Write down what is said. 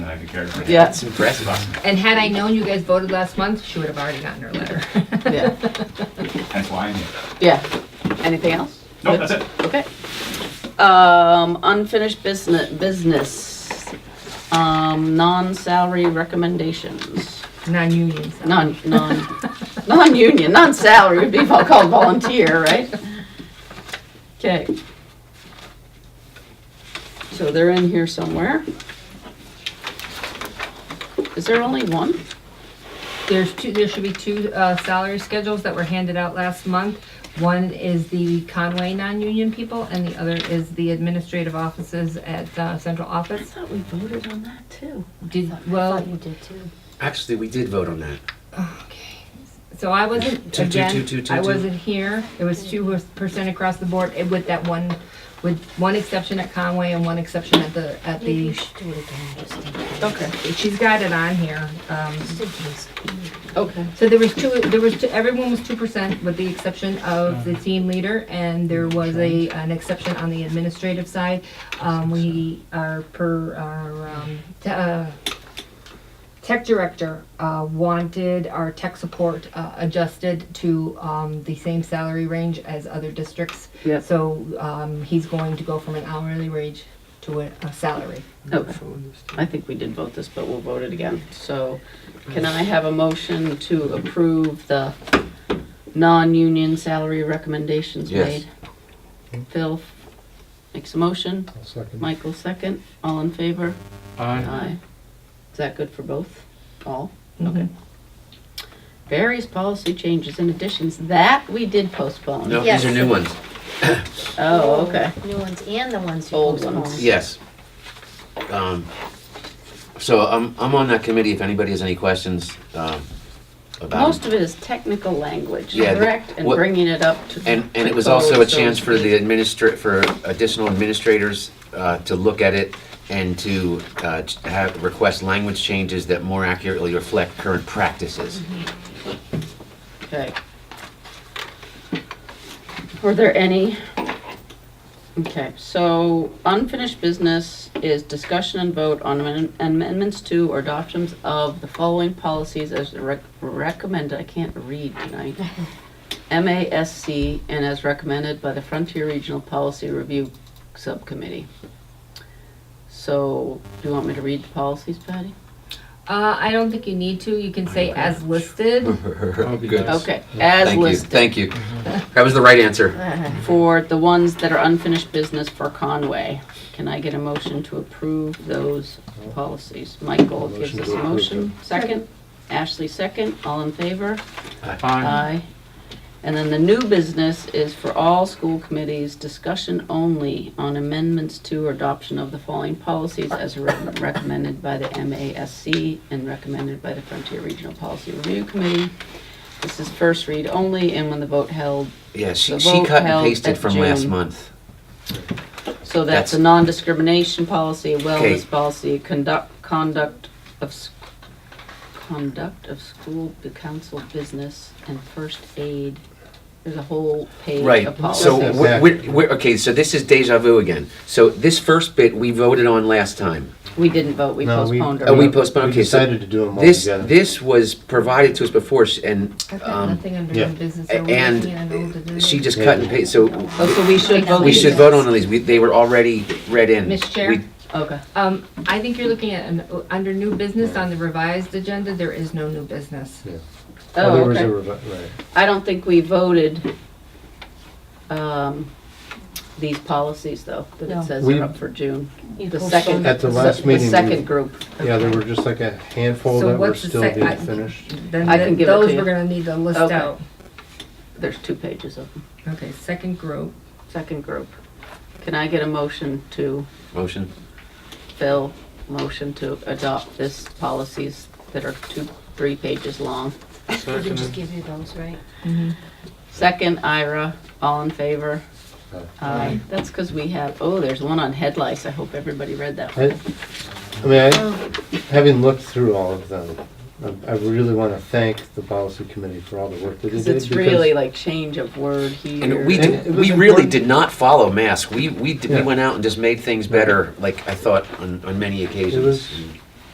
to character. Yeah. It's impressive. And had I known you guys voted last month, she would have already gotten her letter. Yeah, That's why I'm here. yeah. Anything else? No, that's it. Okay. Um, unfinished business, business, um, non-salary recommendations. Non-union. so. Non, non, non-union, non-salary would be called volunteer, right? Okay. So they're in here somewhere. Is there only one? There's two, there should be two uh, salary schedules that were handed out last month. One is the Conway non-union people and the other is the administrative offices at uh, central I office. thought we voted on that too. Did, well, did too. Actually, we did vote on that. okay. So I wasn't, Two, two, two, again, two, two, I two. wasn't here. It was two percent across the board eh, with that one, with one exception at Conway and one exception at the, at Maybe the, we should do it again, just in case. Okay, she's got it on here. um, Just in case. okay. So there was two, there was, two- everyone was two percent with the exception of the team leader and there was a, an exception on the administrative side. Um, we are per, our, um, te- uh, tech director, uh, wanted our tech support, uh, adjusted to, um, the same salary range as other districts. Yep. So, um, he's going to go from an hourly wage to a, a salary. Okay. Oh, I think we did vote this, but we'll vote it again. So can I have a motion to approve the non-union salary recommendations Yes. made? Phil makes a motion, Michael second, all in favor? Aye. Is that good for both? All? Okay. Various policy changes and additions that we did postpone. No, Yes. these are new ones. Oh, okay. New ones and the ones you Old postponed. ones. Yes. Um, so I'm, I'm on that committee if anybody has any questions um, about Most of it is technical language, Yeah, the- correct? And what- bringing it up to. And, and it was also a code, so chance to for the speak. administr, for additional administrators uh, to look at it and to uh, ch- have, request language changes that more accurately reflect current practices. Okay. Were there any? Okay, so unfinished business is discussion and vote on amen- amendments to or adoptions of the following policies as rec- recommended, I can't read tonight. MASC and as recommended by the Frontier Regional Policy Review Subcommittee. So, do you want me to read the policies, Patty? Uh, I don't think you need to, you can say as listed. Good. Okay, as Thank you, listed. thank you. That was the right answer. Uh-huh. for the ones that are unfinished business for Conway. Can I get a motion to approve those policies? Michael gives us a motion. Second? Ashley second. All in favor? Aye. And then the new business is for all school committees, discussion only on amendments to or adoption of the following policies as re- recommended by the MASC and recommended by the Frontier Regional Policy Review Committee. This is first read only, and when the vote held, Yeah, she, The she vote cut and held pasted at from last June. month. So that's That's- a non-discrimination policy, a Okay. wellness policy, conduct, conduct of, s- conduct of school, bu- council business, and first aid. There's a whole page of Right, so, policies. we're- we're, we're, okay, so this is deja vu again. So this first bit, we voted on last time. We didn't vote, we No, we- postponed. Oh, our we vote. postponed, We okay, so. decided to do them all This, together. this was provided to us before, sh- and, I've got um, nothing under yeah. new business. so we're looking at old and business. she just cut and paste, so Oh, so we should vote. we these. should vote on all these, we, they were already read in. Ms. Chair? We- Okay, Um, I think you're looking at, an- under new business on the revised agenda, there is no new business. Oh, there oh, was a okay. revi- right. I don't think we voted, um, these policies though, that No. it says We- are up for June. You The postponed second. At the se- last meeting, The we- second group. Yeah, there were just like a handful So that were what's the still sec- I- being finished. Then I can th- give it to those you. we're gonna need to list Okay. out. There's two pages of them. Okay, second group. Second group. Can I get a motion to, Motion, Phil, motion to adopt this policies that are two, three pages long? We can just give you those, right? Second, Ira, all in favor? Aye. Aye. That's because we have, oh, there's one on head lice. I hope everybody read that. one. I, I mean, I, having looked through all of them, I- I really want to thank the policy committee for all the work that they did. Because it's really like change of word here. and we, And did- it was we really important. did not follow mask, we, we, d- we Yeah. went out and just made things better, like I thought on, on many occasions. was- And